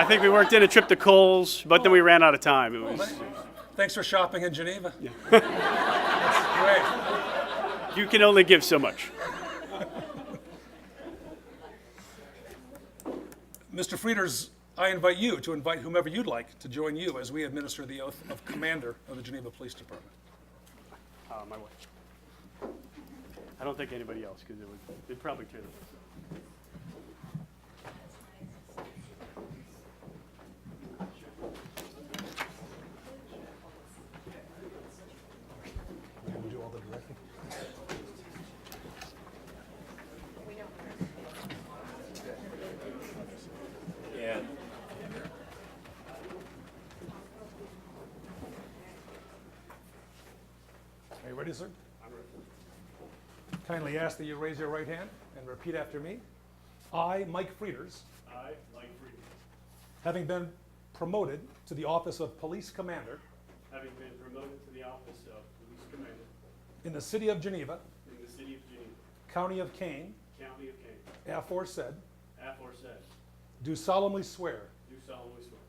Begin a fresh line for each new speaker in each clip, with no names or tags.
I think we worked in a trip to Kohl's, but then we ran out of time. It was,
Thanks for shopping in Geneva. That's great.
you can only give so much.
Mr. Frieders, I invite you to invite whomever you'd like to join you as we administer the oath of Commander of the Geneva Police Department.
Uh, my wife. I don't think anybody else, because it would, they'd probably tear the.
Are you ready, sir? Kindly ask that you raise your right hand and repeat after me. I, Mike Frieders,
I, Mike Friedman,
having been promoted to the office of Police Commander
having been promoted to the office of police commander
in the city of Geneva,
in the city of Geneva,
county of Kane,
county of Kane,
aforesaid,
aforesaid,
do solemnly swear
do solemnly swear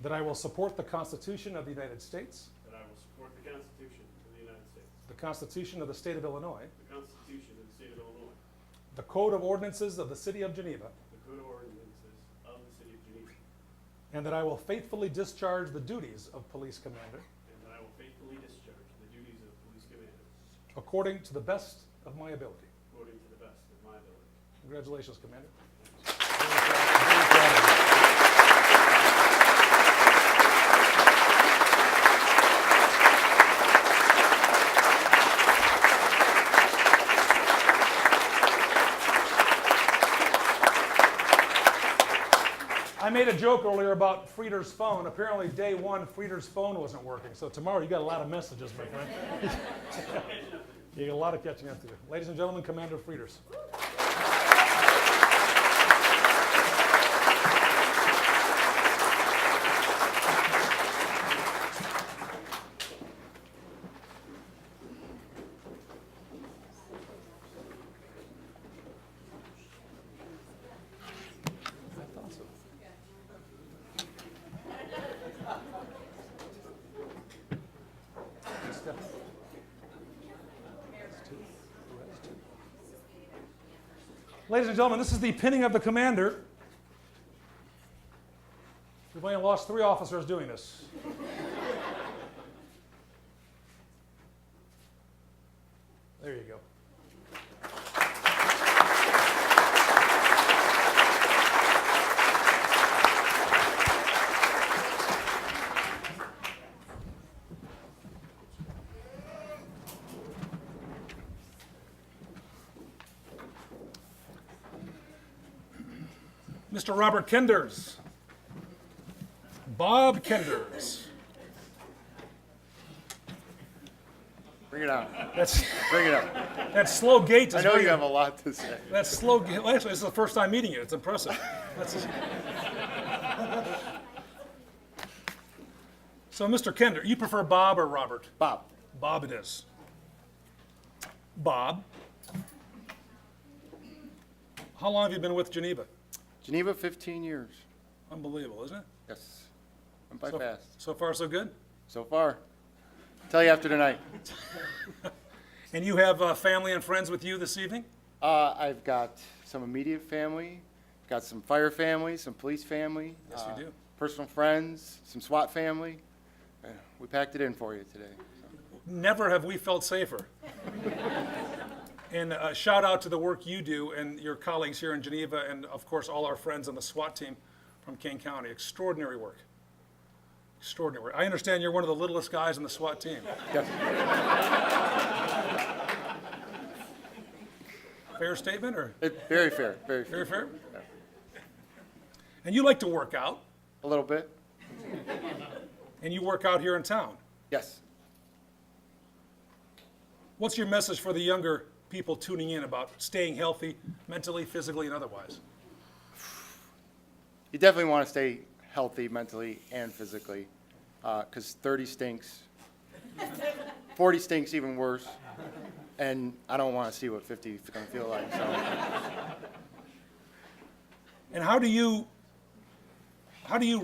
that I will support the Constitution of the United States,
that I will support the Constitution of the United States,
the Constitution of the state of Illinois,
the Constitution of the state of Illinois,
the Code of Ordinances of the city of Geneva,
the code of ordinances of the city of Geneva,
and that I will faithfully discharge the duties of Police Commander
and that I will faithfully discharge the duties of police commander
according to the best of my ability.
according to the best of my ability.
Congratulations, Commander. I made a joke earlier about Frieder's phone. Apparently, day one, Frieder's phone wasn't working. So tomorrow, you got a lot of messages, my friend. you got a lot of catching up to do. Ladies and gentlemen, Commander Frieders. Step. Ladies and gentlemen, this is the pinning of the commander. We've only lost three officers doing this. There you go. Mr. Robert Kenders. Bob Kenders.
Bring it on.
That's,
Bring it up.
that slow gait is
I know
very-
you have a lot to say.
That's slow. g- Well, actually, this is the first time meeting you. It's impressive. That's- so, Mr. Kender, you prefer Bob or Robert?
Bob,
Bob it is. Bob. How long have you been with Geneva?
Geneva, 15 years.
Unbelievable, isn't it?
Yes. Went by
So-
fast.
So far, so good.
So far. Tell you after tonight.
And you have uh, family and friends with you this evening?
Uh, I've got some immediate family, got some fire family, some police family.
Yes, you
uh,
do.
Personal friends, some SWAT family. Yeah, We packed it in for you today.
Never have we felt safer. and uh, shout out to the work you do and your colleagues here in Geneva, and of course, all our friends on the SWAT team from King County. Extraordinary work. Extraordinary work. I understand you're one of the littlest guys on the SWAT team.
Yes.
Fair statement, or
It- Very fair, very fair.
very fair? And you like to work out,
A little bit?
and you work out here in town.
Yes.
What's your message for the younger people tuning in about staying healthy, mentally, physically, and otherwise?
you definitely want to stay healthy mentally and physically because 30 stinks 40 stinks even worse and i don't want to see what 50 is going to feel like so
And how do you how do you